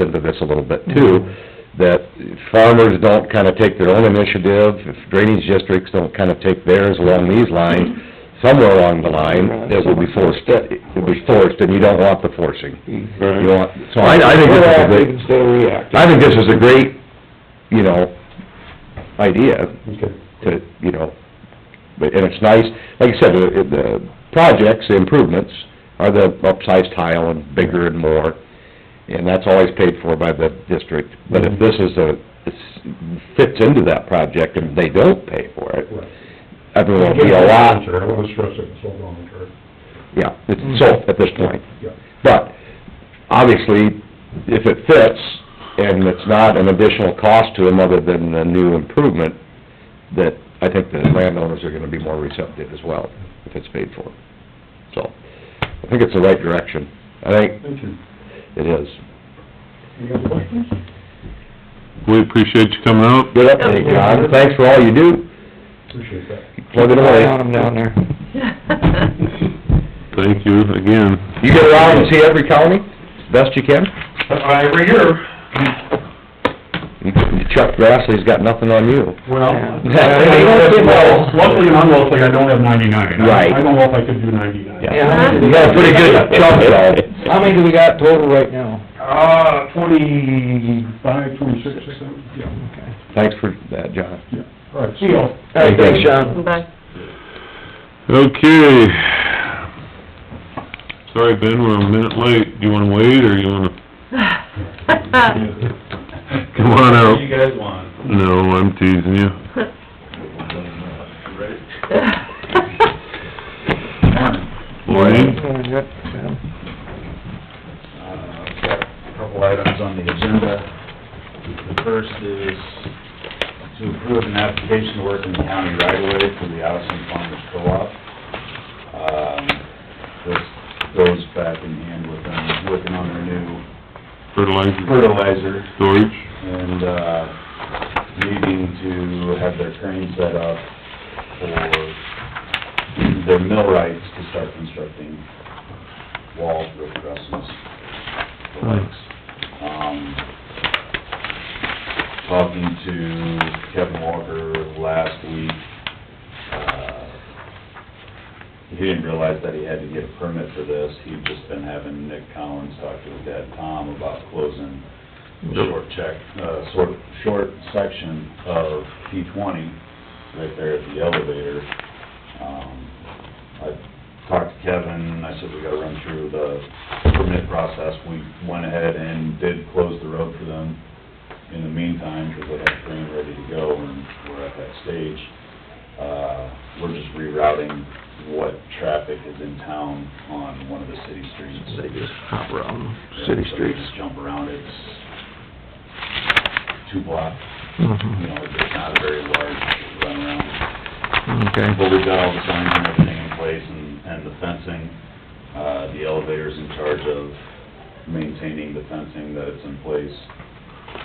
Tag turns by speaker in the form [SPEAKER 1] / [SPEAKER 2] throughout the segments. [SPEAKER 1] into this a little bit too, that farmers don't kinda take their own initiative, if drainage districts don't kinda take theirs along these lines, somewhere along the line, it will be forced, it will be forced, and you don't want the forcing. You
[SPEAKER 2] Right.
[SPEAKER 1] want, so I, I think this is a
[SPEAKER 2] Proactive
[SPEAKER 1] great,
[SPEAKER 2] instead of reactive.
[SPEAKER 1] I think this is a great, you know, idea
[SPEAKER 2] Okay.
[SPEAKER 1] to, you know, but, and it's nice, like I said, the, the projects, the improvements are the upsized tile and bigger and more, and that's always paid for by the district, but if this is a, it's- fits into that project and they don't pay for it, everyone will be a lot,
[SPEAKER 3] I want to stress it, it's all voluntary,
[SPEAKER 1] yeah,
[SPEAKER 4] Mm-hmm.
[SPEAKER 1] it's sold at this point.
[SPEAKER 3] yeah.
[SPEAKER 1] But, obviously, if it fits, and it's not an additional cost to them other than a new improvement, that I think the landowners are gonna be more receptive as well, if it's paid for. So, I think it's the right direction. I think
[SPEAKER 3] Thank you.
[SPEAKER 1] it is.
[SPEAKER 3] Any other questions?
[SPEAKER 2] We appreciate you coming out.
[SPEAKER 1] Good update, John. Thanks for all you do.
[SPEAKER 3] Appreciate that.
[SPEAKER 1] Plug it away.
[SPEAKER 2] down there. Thank you again.
[SPEAKER 1] You get around and see every county, best you can?
[SPEAKER 3] Uh, Every year.
[SPEAKER 1] Chuck Grassley's got nothing on you.
[SPEAKER 3] Well,
[SPEAKER 1] Yeah.
[SPEAKER 3] luckily and unluckily, I don't have ninety-nine. I-
[SPEAKER 1] Right.
[SPEAKER 3] I don't know if I could do ninety-nine.
[SPEAKER 2] Yeah.
[SPEAKER 1] You got a pretty good chunk though.
[SPEAKER 2] How many do we got total right now?
[SPEAKER 3] Uh, twenty-five, twenty-six, I think, yeah,
[SPEAKER 1] Thanks for that, John.
[SPEAKER 3] yeah. All right, see y'all.
[SPEAKER 2] All right, thanks, Sean.
[SPEAKER 5] Bye.
[SPEAKER 6] Okay. Sorry, Ben, we're a minute late. Do you wanna wait, or you wanna,
[SPEAKER 5] Uh.
[SPEAKER 6] come on out?
[SPEAKER 4] You guys want.
[SPEAKER 6] No, I'm teasing you. Morning.
[SPEAKER 4] Uh, I've got a couple items on the agenda. The first is to approve an application to work in the county right away for the Allison Farmers Co-op. Um, This goes back in hand with them working on their new
[SPEAKER 6] Fertilizer,
[SPEAKER 4] fertilizer
[SPEAKER 6] storage.
[SPEAKER 4] and, uh, needing to have their crane set up for their mill rights to start constructing walls, roof trusses, the likes. Um, talking to Kevin Walker last week, uh, he didn't realize that he had to get a permit for this. He'd just been having Nick Collins talk to his dad, Tom, about closing the short check, uh, sort, short section of P twenty, right there at the elevator. Um, I talked to Kevin, I said we gotta run through the permit process. We went ahead and did close the road for them in the meantime, because they had green ready to go, and we're at that stage. Uh, we're just rerouting what traffic is in town on one of the city streets.
[SPEAKER 2] They just hop around
[SPEAKER 4] Yeah,
[SPEAKER 2] city
[SPEAKER 4] so they
[SPEAKER 2] streets.
[SPEAKER 4] just jump around, it's two block, you know, it's not a very large runaround.
[SPEAKER 2] Okay.
[SPEAKER 4] But we've got all the signs and everything in place and, and the fencing. Uh, the elevator's in charge of maintaining the fencing that it's in place,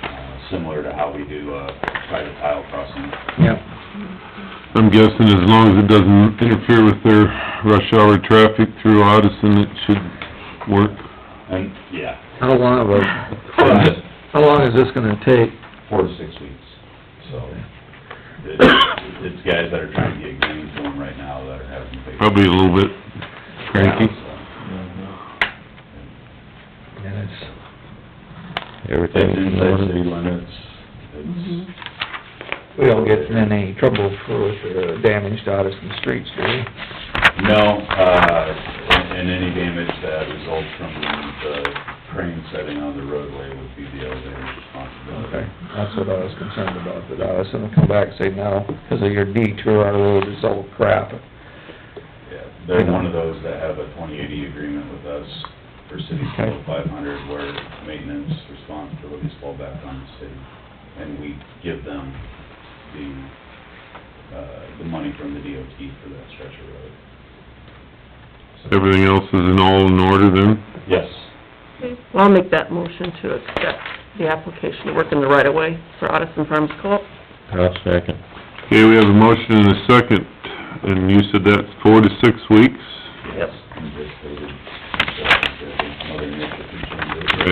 [SPEAKER 4] uh, similar to how we do, uh, private tile crossing.
[SPEAKER 2] Yep.
[SPEAKER 6] I'm guessing as long as it doesn't interfere with their rush hour traffic through Odison, it should work.
[SPEAKER 4] And, yeah,
[SPEAKER 2] How long of a, how long is this gonna take?
[SPEAKER 4] four to six weeks, so. it- It's guys that are trying to get green to them right now that are having. big-
[SPEAKER 6] Probably a little bit cranky.
[SPEAKER 2] And it's
[SPEAKER 4] It's inside city limits, it's,
[SPEAKER 2] We don't get in any trouble for uh, damage to Addison streets, do we?
[SPEAKER 4] no, uh, and any damage that results from the crane setting on the roadway would be the elevator's responsibility.
[SPEAKER 2] Okay, that's what I was concerned about, that Addison will come back and say, no, because of your detour, our road is all crap.
[SPEAKER 4] Yeah, They're one of those that have a twenty eighty agreement with us for city code five hundred where maintenance responsibilities fall back on the city. And we give them the, uh, the money from the DOT for that stretch of road. So-
[SPEAKER 6] Everything else is in all in order then?
[SPEAKER 4] Yes.
[SPEAKER 5] Well, I'll make that motion to accept the application to work in the right-of-way for Addison Farms Co-op.
[SPEAKER 1] second.
[SPEAKER 6] Okay, we have a motion and a second, and you said that's four to six weeks?
[SPEAKER 4] uh,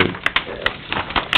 [SPEAKER 4] Yes.
[SPEAKER 6] Right.